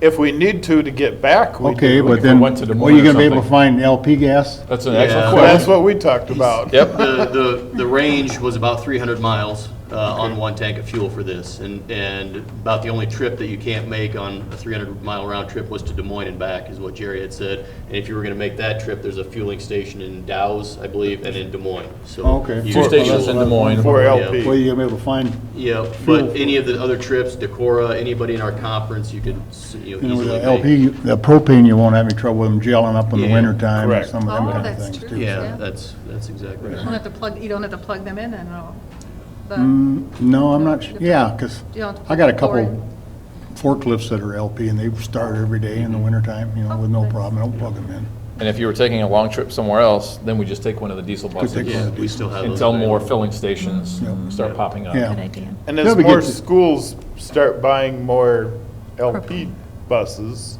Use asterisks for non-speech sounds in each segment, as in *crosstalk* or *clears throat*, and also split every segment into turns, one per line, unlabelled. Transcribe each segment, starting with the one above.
if we need to, to get back, we
Okay,
do.
but
if we
then,
went to the
were you
moon or
gonna be able to
something.
find LP gas?
That's an
Yeah.
excellent
Well, That's
question.
what we talked about.
Yep.
The, the, the range was about 300 miles uh, on one tank of fuel for this, and, and about the only trip that you can't make on a 300-mile round trip was to Des Moines and back, is what Jerry had said. And if you were going to make that trip, there's a fueling station in Dow's, I believe, and in Des Moines, so.
Oh, Okay.
you-
Two stations in Des Moines.
For
Were
LP.
you gonna be able to find,
Yeah,
Fuel.
but any of the other trips, Decorah, anybody in our conference, you could, s- you
you
know,
know,
easily
the LP,
make.
the propane, you won't have any trouble with them gelling up in the
Yeah,
wintertime or
correct.
some of them
Oh,
kind of
that's
things
true.
too.
Yeah,
Yeah.
that's, that's exactly
You don't
right.
have to plug, you don't have to plug them in then, no? The-
Mm, No, I'm not, su- yeah, because
You don't have to
I got a
pour
couple forklifts that are LP and they start every day in the wintertime, you know, with
Oh,
no problem, I don't plug them in.
And if you were taking a long trip somewhere else, then we just take one of the diesel
take
buses
one.
Yeah, we still have those.
until more
available.
filling stations start popping up.
Yeah.
Good idea.
And
Yeah,
as
we
more
get to-
schools start buying more LP buses,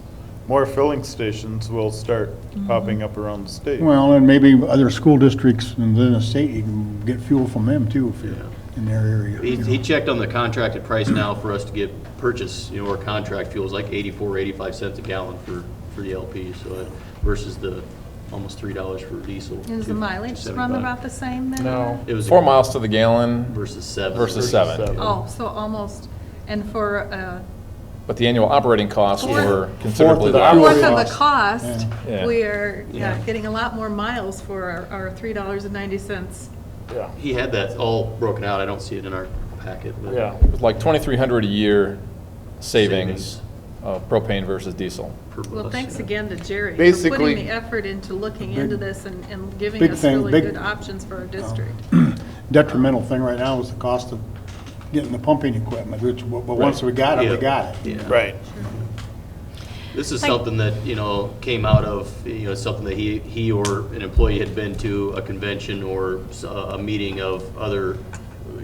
more filling stations will start popping up around the state.
Well, and maybe other school districts in the state, you can get fuel from them too if you're in their area.
He,
you know.
he checked on the contracted price now for us to get purchase, you know, or contract fuels like 84, 85 cents a gallon for, for the LP, so it- versus the almost $3 for diesel.
Is the
two-
mileage
275.
run about the same then?
No,
It was-
four miles to the gallon
Versus seven.
versus seven.
seven.
Oh, so almost, and for uh,
But the annual operating costs
Fourth-
were considerably
Fourth of the
fourth
lower.
hour.
of the
cost.
cost,
Yeah.
we're yeah,
Yeah.
getting a lot more miles for our- our $3.90.
Yeah,
He had that all broken out, I don't see it in our packet, but.
yeah.
It was Like 2,300 a year savings
Savings.
of propane versus diesel.
per
Well,
bus,
thanks
yeah.
again to Jerry for
Basically-
putting the effort into looking into this and and giving
big
us
thing-
really
big- Oh.
good options for our district.
Detrimental thing right now is the cost of getting the pumping equipment, which, but but once we got it, we
Yeah.
got it.
Yeah.
Right.
This is something that, you know, came out of, you know, something that he, he or an employee had been to a convention or s- a, a meeting of other,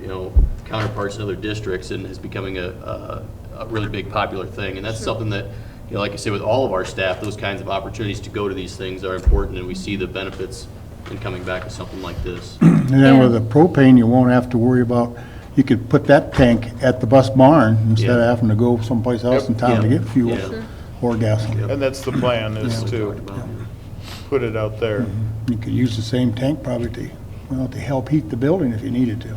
you know, counterparts in other districts and is becoming a, a, a really big popular thing. And that's something that, you know, like I say, with all of our staff, those kinds of opportunities to go to these things are important and we see the benefits in coming back with something like this.
And then with the propane, you won't have to worry about, you could put that tank at the bus barn instead of
Yeah.
having to go someplace else in town to
Yeah.
get fuel
Yeah. Sure.
or gasoline.
And that's the plan, is
We talked
to
about, yeah.
put it out there.
You could use the same tank probably to, well, to help heat the building if you needed to.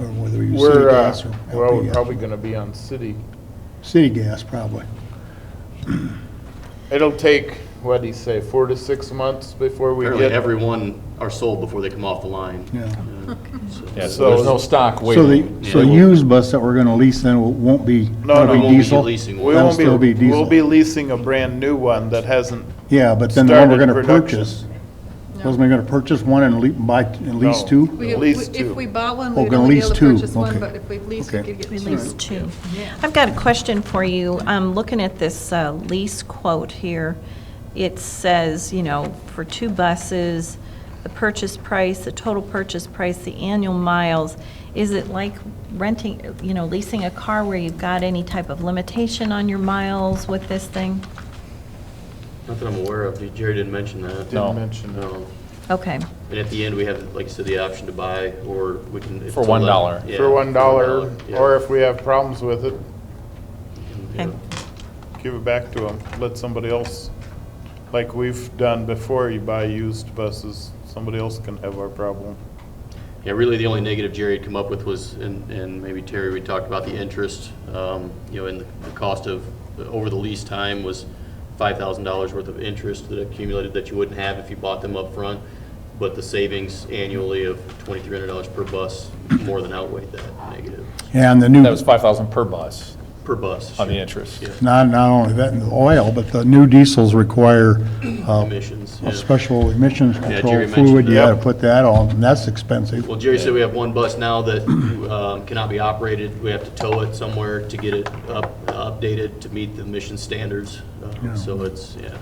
Or whether you use city
We're, uh,
gas or
we're
LP
all
gas.
probably gonna be on city.
City gas, probably.
It'll take, what'd he say, four to six months before we
Apparently
get
everyone are sold before they come off the line.
Yeah.
Uh, so-
Yeah,
So-
so there's no stock
So
waiting.
the, so the
Yeah.
used bus that we're gonna lease then will- won't be,
No, no,
that'll be
won't
be
diesel?
leasing one.
We
That'll
won't
still be
be, we'll
diesel.
be leasing a brand-new one that hasn't,
Yeah, but then the one we're
started
gonna
production.
purchase, wasn't we gonna purchase one and lease, buy, and lease
No.
two?
We-
At least
If
two.
we bought one,
Oh,
we'd
gonna
only be able
lease
to
two,
purchase one,
okay.
but if we leased, we
Okay.
could get two.
Release two. I've got a question for you. I'm looking at this uh, lease quote here. It says, you know, for two buses, the purchase price, the total purchase price, the annual miles. Is it like renting, you know, leasing a car where you've got any type of limitation on your miles with this thing?
Not that I'm aware of, Jerry didn't mention that.
No.
didn't mention it.
No.
Okay,
And at the end, we have, like I said, the option to buy, or we can. if
For
it's
one
eleven-
dollar.
yeah,
for one dollar,
yeah.
or if we have problems with it,
Yeah.
okay.
give it back to them, let somebody else, like we've done before, you buy used buses, somebody else can have our problem.
Yeah, really, the only negative Jerry had come up with was, and, and maybe Terry, we talked about the interest, um, you know, and the the cost of, over the lease time was five thousand dollars worth of interest that accumulated that you wouldn't have if you bought them up front, But the savings annually of twenty-three hundred dollars per bus more than outweighed that negative,
Yeah, And the new,
That was 5,000 per bus
per bus.
on the interest.
not, not only that, and the oil, but the new diesels require uh,
Emissions.
a
yeah.
special emissions
Jerry
control
mentioned
fluid. You
that.
gotta put that on, and that's expensive.
Well, Jerry said we have one bus now that *clears throat* um, cannot be operated. We have to tow it somewhere to get it up, updated to meet the mission standards. Uh, So it's, yeah,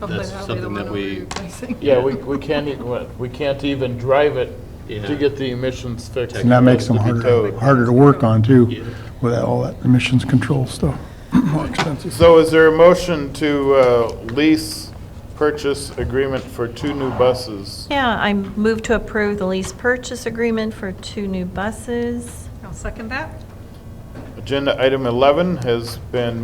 Hopefully
that's
that'll be the
something
one
that
we're
we,
replacing.
Yeah, we, we can't even, we can't even drive it
Yeah.
to get the emissions fixed.
And that makes them
It'll be
harder,
towed.
harder to work on too,
Yeah.
with all that emissions control stuff. *clears throat* More expensive.
So is there a motion to uh, lease purchase agreement for two new buses?
Yeah, I move to approve the lease purchase agreement for two new buses.
I'll second that.
Agenda item 11 has been